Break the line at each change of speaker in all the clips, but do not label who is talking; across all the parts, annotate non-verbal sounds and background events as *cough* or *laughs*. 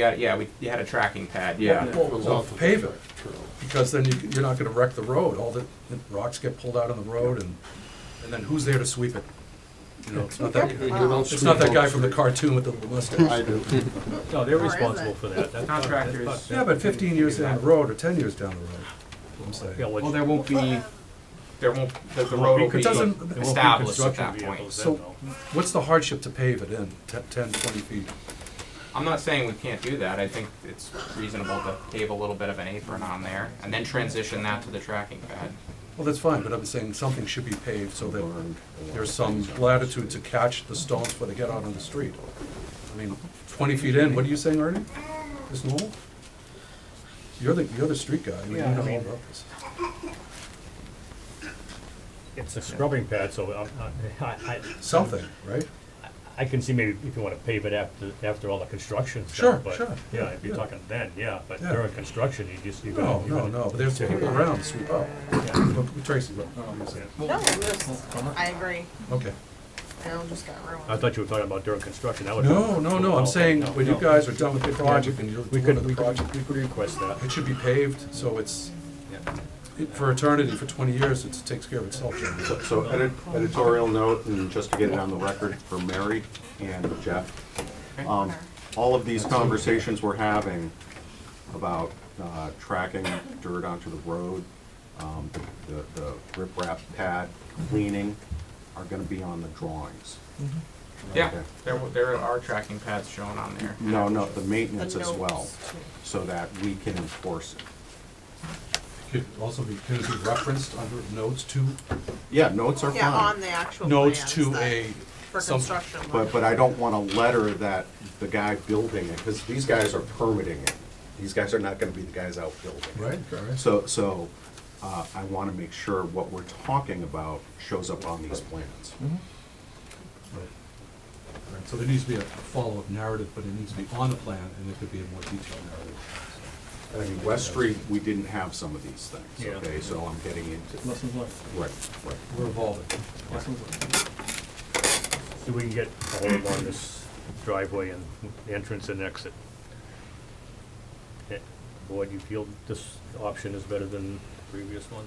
Yeah, yeah, we, you had a tracking pad, yeah.
Well,
Comes
well,
off of
pave
the
it,
trail.
because then you- you're not gonna wreck the road, all the the rocks get pulled out on the road, and, and then who's there to sweep it? You know, it's not that,
You don't
it's not that
sweep
guy
off
from the
street.
cartoon with the
I
mustache.
do.
No, they're
Or is
responsible
it?
for that. That- that-
Contractors.
that's-
Yeah, but fifteen years down the road, or ten years down the road, I'm
Yeah,
saying.
what-
Well, there won't be, there won't, the, the road will
It
be
doesn't- there won't be
established at
construction
that point.
vehicles.
So, what's the hardship to pave it in, te- ten, twenty feet?
I'm not saying we can't do that, I think it's reasonable to pave a little bit of an apron on there, and then transition that to the tracking pad.
Well, that's fine, but I'm saying something should be paved so that there's some latitude to catch the stones before they get out on the street. I mean, twenty feet in, what are you saying, Ernie? There's no? You're the, you're the street guy, you
Yeah, I
know all
mean-
about this.
It's a scrubbing pad, so I'm- I, *laughs* I,
Something, right?
I can see maybe if you wanna pave it after, after all the construction's
Sure,
done, but,
sure,
yeah,
yeah,
if you're
yeah.
talking then, yeah, but
Yeah.
during construction, you just, you
No,
gotta. you
no,
gotta
no, but there's
take
people
it.
around, sweep up. Look, Tracy, look.
Yeah.
No, it was- I agree.
Okay.
It'll just get ruined.
I thought you were talking about during construction, that would.
No, no, no, I'm saying
Oh, No,
when you
no.
guys are done with the project and you're
We
doing
could, we
the
could,
project,
we could request that.
it should be paved, so it's,
Yeah.
it- for eternity, for twenty years, it takes care of itself. generally.
So- So edit- editorial note, and just to get it on the record for Mary and Jeff, um, all of these conversations we're having about uh, tracking dirt onto the road, um, the the riprap pad, cleaning, are gonna be on the drawings.
Yeah,
Okay.
there, w- there are tracking pads shown on there.
No, no, the maintenance
The
as well,
notes, too.
so that we can enforce it.
Could also be, could it be referenced under notes to,
Yeah, notes are fine.
Yeah, on the actual
notes
plans
to
that-
a,
For
some-
construction.
But, but I don't want a letter that the guy building it, because these guys are permitting it. These guys are not gonna be the guys out building it.
right? So
So, so, uh, I wanna make sure what we're talking about shows up on these plans.
Right. Right, So there needs to be a a follow-up narrative, but it needs to be on the plan, and it could be a more detailed narrative.
I mean, West Street, we didn't have some of these things,
Yeah.
okay, so I'm getting into,
Lessons learned,
right, right.
We're evolving.
lessons learned.
So we can get a hold of on this driveway and entrance and exit. Eh, Board, you feel this option is better than the previous one?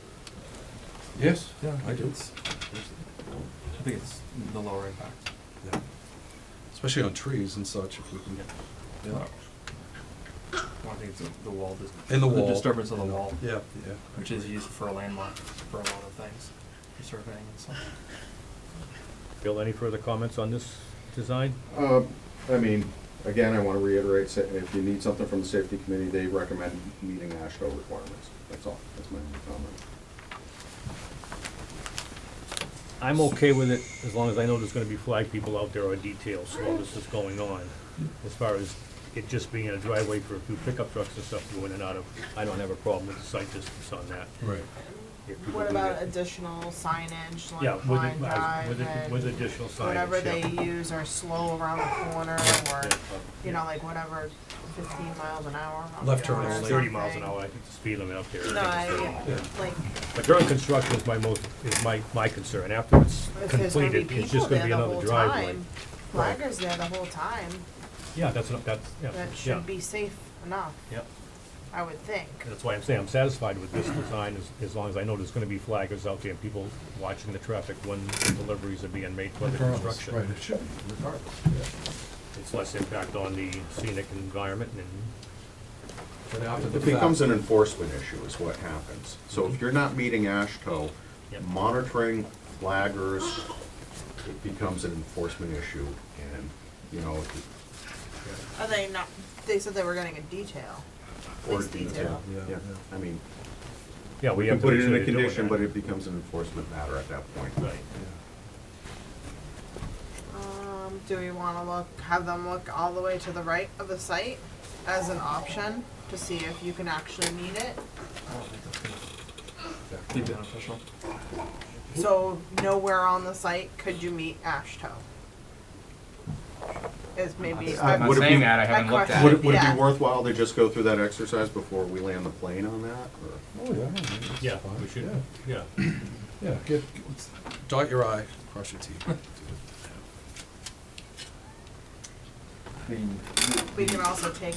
Yes,
Yeah,
I do.
it's- I think it's the lower impact.
Yeah. Especially on trees and such, if we can,
Yeah. I think it's the- the wall, dis-
And the wall.
disturbance of the wall,
yeah, yeah.
which is used for a landmark for a lot of things, for surveying and stuff.
Bill, any further comments on this design?
Um, I mean, again, I wanna reiterate, sa- if you need something from the safety committee, they recommend meeting ASHTO requirements. That's all, that's my only comment.
I'm okay with it, as long as I know there's gonna be flag people out there or details while this is going on. As far as it just being a driveway for a few pickup trucks and stuff going in and out of, I don't have a problem with the sight distance on that.
Right.
If people
What
do
about
that.
additional signage,
Yeah,
like
with,
line
it- I-
drive
with, it- with
and
additional signage,
whatever
yeah.
they use or slow around the corner or,
Yeah,
you
yeah.
know, like whatever, fifteen miles an hour. on the
Left turn
corner or
only.
Thirty miles an
something.
hour, I think the speed limit up there. I
No,
think it's 30.
I, like,
But during construction is my most, is my, my concern. After it's
if there's gonna be
completed, it's
people
just gonna
there
be
the
another
whole
driveway.
time, flaggers there the whole time,
Yeah, that's, what- that's, yeah,
that
yeah.
should be safe enough,
Yeah,
I would think.
that's why I'm saying I'm satisfied with this design as, as long as I know there's gonna be flaggers out there and people watching the traffic when deliveries are being made for the
Regardless,
construction.
right, it should, be regardless.
It's less impact on the scenic environment and,
But after the
It
fact.
becomes an enforcement issue is what happens. So if you're not meeting ASHTO,
Mhm. Yep.
monitoring flaggers, it becomes an enforcement issue and, you know,
Are they not, they said they were getting a detail.
or
Police
detail.
detail.
Yeah,
Yeah,
yeah.
I mean,
yeah, we
we
have
can
to make sure
put it in a
they're doing
condition, but
that.
it becomes an enforcement matter at that point.
Right.
Yeah.
Um, do we wanna look, have them look all the way to the right of the site as an option to see if you can actually meet it?
I don't think that's gonna Be beneficial.
So nowhere on the site could you meet Ashtoe? Is maybe.
I'm not
would it be-
saying that, I haven't
I
looked at
question-
Would
it.
it, would it
Yeah.
be worthwhile to just go through that exercise before we land the plane on that, or?
Oh, yeah. I mean, it's
Yeah,
fine.
we should,
Yeah,
yeah.
Yeah, get, get- let's dot your i, cross your t.
I mean,
We can also take